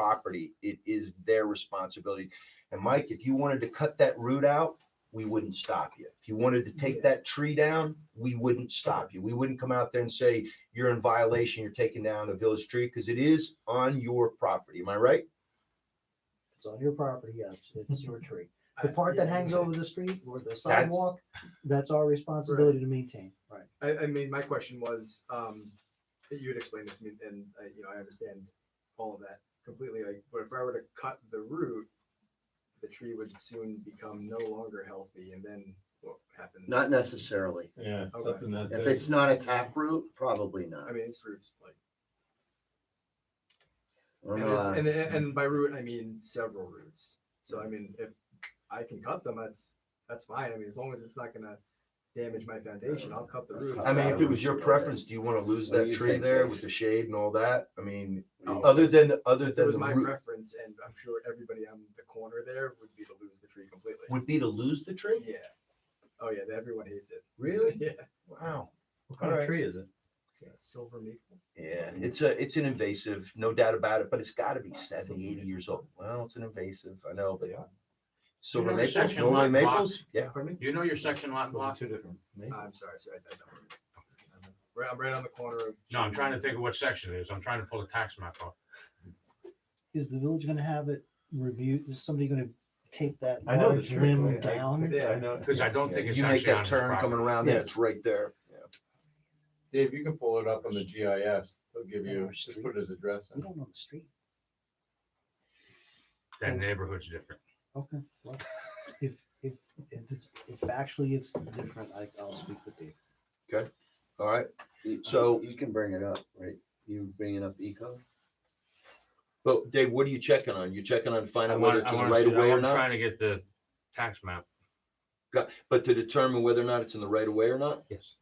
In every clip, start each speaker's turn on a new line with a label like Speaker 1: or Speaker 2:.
Speaker 1: property. It is their responsibility. And Mike, if you wanted to cut that root out, we wouldn't stop you. If you wanted to take that tree down, we wouldn't stop you. We wouldn't come out there and say, you're in violation, you're taking down a village tree, because it is on your property. Am I right?
Speaker 2: It's on your property, yes, it's your tree. The part that hangs over the street or the sidewalk, that's our responsibility to maintain, right?
Speaker 3: I, I mean, my question was, um, that you had explained this to me, and I, you know, I understand all of that completely. Like, but if I were to cut the root, the tree would soon become no longer healthy, and then what happens?
Speaker 4: Not necessarily.
Speaker 5: Yeah,
Speaker 3: Okay.
Speaker 5: something that.
Speaker 4: If it's not a taproot, probably
Speaker 3: I
Speaker 4: not.
Speaker 3: mean, its roots like,
Speaker 1: Oh,
Speaker 4: We're
Speaker 3: and, it's,
Speaker 1: uh,
Speaker 4: not-
Speaker 3: and
Speaker 1: mm.
Speaker 3: and by root I mean several roots. So I mean, if I can cut them, that's that's fine. I mean, as long as it's not gonna damage my foundation, I'll cut the roots.
Speaker 1: I mean, if it was your preference, do you want to lose
Speaker 4: What do
Speaker 1: that
Speaker 4: you
Speaker 1: tree
Speaker 4: think,
Speaker 1: there
Speaker 4: Dave?
Speaker 1: with the shade and all that? I mean,
Speaker 3: Oh.
Speaker 1: other than, the other
Speaker 3: If it
Speaker 1: than
Speaker 3: was
Speaker 1: the
Speaker 3: my
Speaker 1: root,
Speaker 3: preference, and I'm sure everybody on the corner there would be to lose the tree completely.
Speaker 1: would be to lose the tree?
Speaker 3: Yeah. Oh yeah, everyone hates it.
Speaker 1: Really?
Speaker 3: Yeah.
Speaker 1: Wow.
Speaker 5: What kind of
Speaker 1: Alright.
Speaker 5: tree is it?
Speaker 3: It's a silver maple.
Speaker 1: Yeah, it's a, it's an invasive, no doubt about it, but it's got to be 70, 80 years old. Well, it's an invasive, I know, but
Speaker 5: Yeah.
Speaker 1: silver
Speaker 6: You know,
Speaker 1: maples,
Speaker 6: section
Speaker 1: Norway
Speaker 6: lot
Speaker 1: maples, yeah.
Speaker 3: Pardon me? Ah,
Speaker 6: You know your section lot
Speaker 5: Those are
Speaker 6: block?
Speaker 5: Two different. names.
Speaker 3: I'm sorry, sorry. I- I don't- Right- I'm right on the corner of.
Speaker 6: No, I'm trying to think of what section it is. I'm trying to pull the tax map off.
Speaker 2: Is the village gonna have it reviewed, is somebody gonna take that
Speaker 5: I know the
Speaker 2: large
Speaker 5: tree. I
Speaker 2: limb
Speaker 5: mean,
Speaker 2: down?
Speaker 5: I- I know.
Speaker 6: Because I don't
Speaker 1: Yeah,
Speaker 6: think it's
Speaker 1: You make
Speaker 6: actually on
Speaker 1: that
Speaker 6: his
Speaker 1: turn coming
Speaker 6: property.
Speaker 1: around there, it's right there.
Speaker 5: Dave, you can pull it up on the GIS. They'll give
Speaker 2: Yeah,
Speaker 5: you,
Speaker 2: our
Speaker 5: just
Speaker 2: street.
Speaker 5: put his address
Speaker 2: We
Speaker 5: in.
Speaker 2: don't know the street,
Speaker 6: That neighborhood's different.
Speaker 2: okay. well, If, if, if, if actually it's different, I, I'll speak with Dave.
Speaker 1: All right,
Speaker 4: you-
Speaker 1: so-
Speaker 4: You can bring it up, right? You bringing up eco?
Speaker 1: but Dave, what are you checking on? You checking on to find
Speaker 6: I
Speaker 1: out whether
Speaker 6: want,
Speaker 1: it's
Speaker 6: I
Speaker 1: in the
Speaker 6: want
Speaker 1: right
Speaker 6: to
Speaker 1: of
Speaker 6: see,
Speaker 1: way or
Speaker 6: I'm
Speaker 1: not?
Speaker 6: trying to get the tax map.
Speaker 1: Got- But to determine whether or not it's in the right of way or not?
Speaker 6: Yes.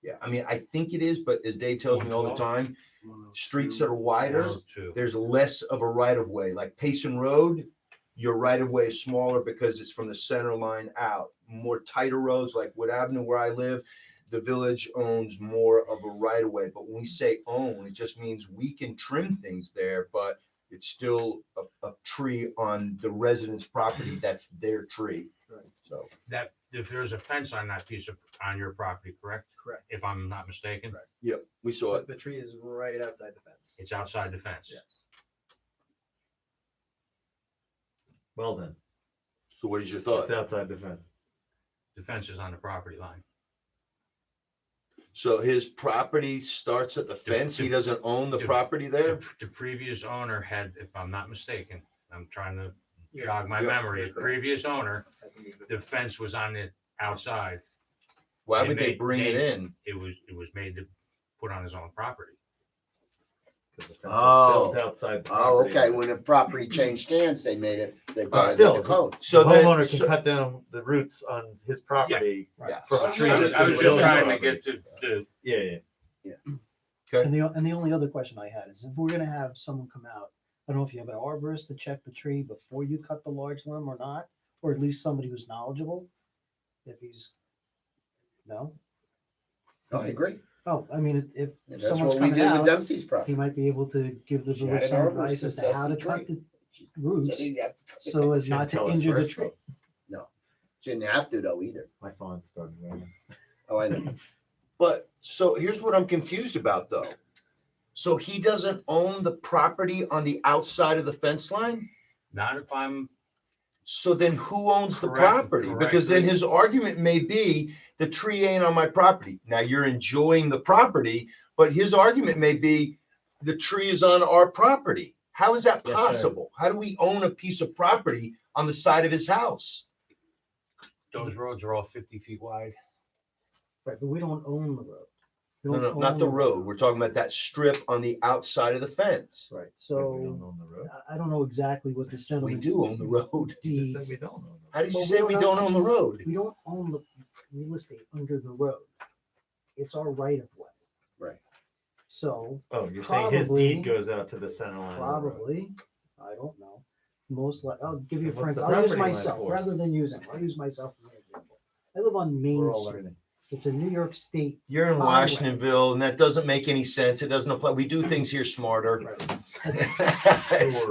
Speaker 1: Yeah, I mean, I think it is, but as Dave tells me all the time,
Speaker 6: oh
Speaker 1: streets that are wider,
Speaker 6: Two.
Speaker 1: there's less of a right of way, like Payson Road, your right of way is smaller because it's from the center line out. More tighter roads like Wood Avenue where I live, the village owns more of a right of way. But when we say own, it just means we can trim things there, but it's still a, a tree on the resident's property. That's their tree.
Speaker 3: Right.
Speaker 1: So,
Speaker 6: That, if there's a fence on that piece of, on your property, correct?
Speaker 3: Correct.
Speaker 6: If I'm not mistaken,
Speaker 3: Correct.
Speaker 1: yep, we saw
Speaker 3: But
Speaker 1: it.
Speaker 3: the tree is right outside the fence.
Speaker 6: it's outside the fence.
Speaker 3: Yes.
Speaker 5: Well then,
Speaker 1: So what is your thought?
Speaker 5: outside the fence.
Speaker 6: The fence is on the property line.
Speaker 1: So his property starts at the fence. He doesn't own the property there?
Speaker 6: The, the previous owner had, if I'm not mistaken, I'm trying to
Speaker 3: Yeah,
Speaker 6: jog my
Speaker 1: Yeah.
Speaker 6: memory, the
Speaker 3: Correct.
Speaker 6: previous owner,
Speaker 3: had to move
Speaker 6: the fence was on the outside.
Speaker 1: Why
Speaker 6: They
Speaker 1: would they
Speaker 6: made-
Speaker 1: bring it
Speaker 6: they-
Speaker 1: in?
Speaker 6: It was, it was made to put on his own property.
Speaker 4: Oh.
Speaker 5: Outside. the
Speaker 4: Oh,
Speaker 5: property
Speaker 4: okay,
Speaker 5: line.
Speaker 4: when a property changed hands, they made it, they
Speaker 1: But
Speaker 4: violated the
Speaker 5: still-
Speaker 4: code.
Speaker 1: So
Speaker 7: the
Speaker 1: then-
Speaker 7: homeowner can
Speaker 1: so-
Speaker 7: cut down the roots on his property.
Speaker 1: Yeah.
Speaker 7: from a
Speaker 6: I
Speaker 7: tree
Speaker 6: was-
Speaker 7: to
Speaker 6: I
Speaker 7: the
Speaker 6: was just
Speaker 7: building.
Speaker 6: trying to get to, to,
Speaker 7: Yeah, yeah.
Speaker 2: And the, and the only other question I had is if we're gonna have someone come out, I don't know if you have an arborist to check the tree before you cut the large limb or not, or at least somebody who's knowledgeable. If he's, no,
Speaker 4: No, I agree.
Speaker 2: oh, I mean, if,
Speaker 4: And
Speaker 2: if
Speaker 4: that's
Speaker 2: someone's
Speaker 4: what we
Speaker 2: coming
Speaker 4: did with
Speaker 2: out,
Speaker 4: Dempsey's
Speaker 2: he
Speaker 4: property.
Speaker 2: might be able to give the
Speaker 4: She had
Speaker 2: village
Speaker 4: an
Speaker 2: some
Speaker 4: arborist
Speaker 2: advice as to
Speaker 4: assess
Speaker 2: how
Speaker 4: the
Speaker 2: to cut
Speaker 4: tree.
Speaker 2: the roots so
Speaker 4: So
Speaker 2: as not to injure the tree.
Speaker 4: Shouldn't have to though either.
Speaker 7: My phone's starting ringing.
Speaker 4: Oh, I know.
Speaker 1: But so here's what I'm confused about though. So he doesn't own the property on the outside of the fence line?
Speaker 6: not if I'm,
Speaker 1: So then who owns the
Speaker 6: Correct,
Speaker 1: property? Because then
Speaker 6: correct.
Speaker 1: his argument may be the tree ain't on my property. Now you're enjoying the property, but his argument may be the tree is on our property. How is that
Speaker 5: Yes, sir.
Speaker 1: possible? How do we own a piece of property on the side of his house?
Speaker 6: those roads are all fifty feet wide.
Speaker 2: Right, but we don't own the road. We
Speaker 1: No,
Speaker 2: don't
Speaker 1: no, not
Speaker 2: own
Speaker 1: the road. We're talking about that strip on the outside of the fence.
Speaker 2: Right,
Speaker 5: We don't
Speaker 2: so
Speaker 5: own the road.
Speaker 2: I, I don't know exactly what this
Speaker 1: We
Speaker 2: gentleman.
Speaker 1: do own the road.
Speaker 5: Just that we don't own the road.
Speaker 1: How did you
Speaker 2: Well,
Speaker 1: say
Speaker 2: we're
Speaker 1: we
Speaker 2: not-
Speaker 1: don't own the road?
Speaker 2: we don't own the real estate under the road. It's our right of way.
Speaker 4: Right.
Speaker 2: So
Speaker 7: Oh, you're saying his deed
Speaker 2: Probably-
Speaker 7: goes out to the center line. of the road.
Speaker 2: probably, I don't know, most like, I'll give you a
Speaker 7: What's
Speaker 2: friend,
Speaker 7: the
Speaker 2: I'll use
Speaker 7: property line
Speaker 2: myself,
Speaker 7: for?
Speaker 2: rather than using, I'll use myself as an example. I live on
Speaker 7: We're
Speaker 2: Main
Speaker 7: all
Speaker 2: Street.
Speaker 7: learning.
Speaker 2: It's a New York State.
Speaker 1: You're in
Speaker 2: Highway.
Speaker 1: Washingtonville, and that doesn't make any sense. It doesn't apply. We do things here smarter.
Speaker 3: Right.
Speaker 1: It's-